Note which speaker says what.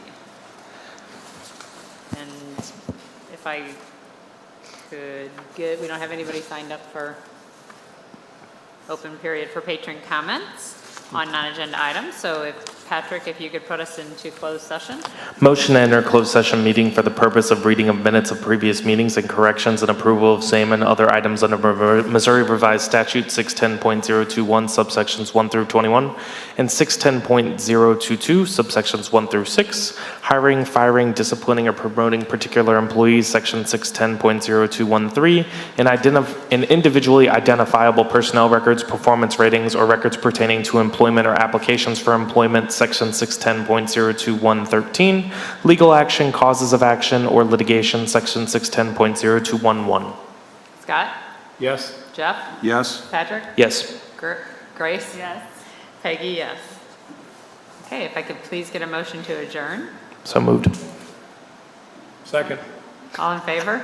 Speaker 1: And if I could get, we don't have anybody signed up for open period for patron comments on non-agenda items. So if, Patrick, if you could put us into closed session?
Speaker 2: Motion to enter closed session meeting for the purpose of reading of minutes of previous meetings and corrections and approval of same and other items under Missouri- Missouri Revised Statute 610.021 subsections 1 through 21 and 610.022 subsections 1 through 6, hiring, firing, disciplining, or promoting particular employees, section 610.0213, and identif- and individually identifiable personnel records, performance ratings, or records pertaining to employment or applications for employment, section 610.02113, legal action, causes of action, or litigation, section 610.0211.
Speaker 1: Scott?
Speaker 3: Yes.
Speaker 1: Jeff?
Speaker 3: Yes.
Speaker 1: Patrick?
Speaker 2: Yes.
Speaker 1: Gr- Grace? Yes. Peggy, yes. Okay, if I could please get a motion to adjourn?
Speaker 2: So moved.
Speaker 3: Second.
Speaker 1: All in favor?